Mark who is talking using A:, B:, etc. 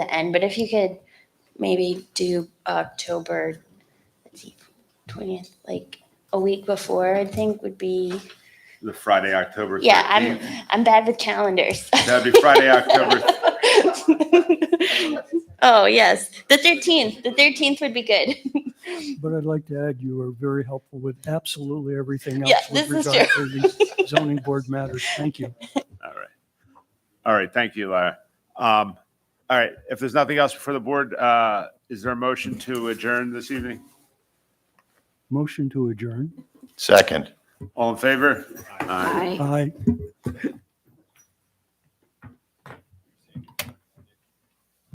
A: the end, but if you could maybe do October, let's see, twentieth, like a week before, I think would be,
B: The Friday, October
A: yeah, I'm,
B: 13th.
A: I'm bad with calendars.
B: That'd be Friday, October.
A: Oh, yes, the thirteenth, the thirteenth would be good.
C: But I'd like to add, you are very helpful with absolutely everything
A: Yeah,
C: else with
A: this is
C: regard to the zoning board matters. Thank you.
B: All right. All right. Thank you, Lara. Um, all right. If there's nothing else before the board, uh, is there a motion to adjourn this evening?
C: Motion to adjourn.
D: Second.
B: All in favor? Aye.
C: Aye.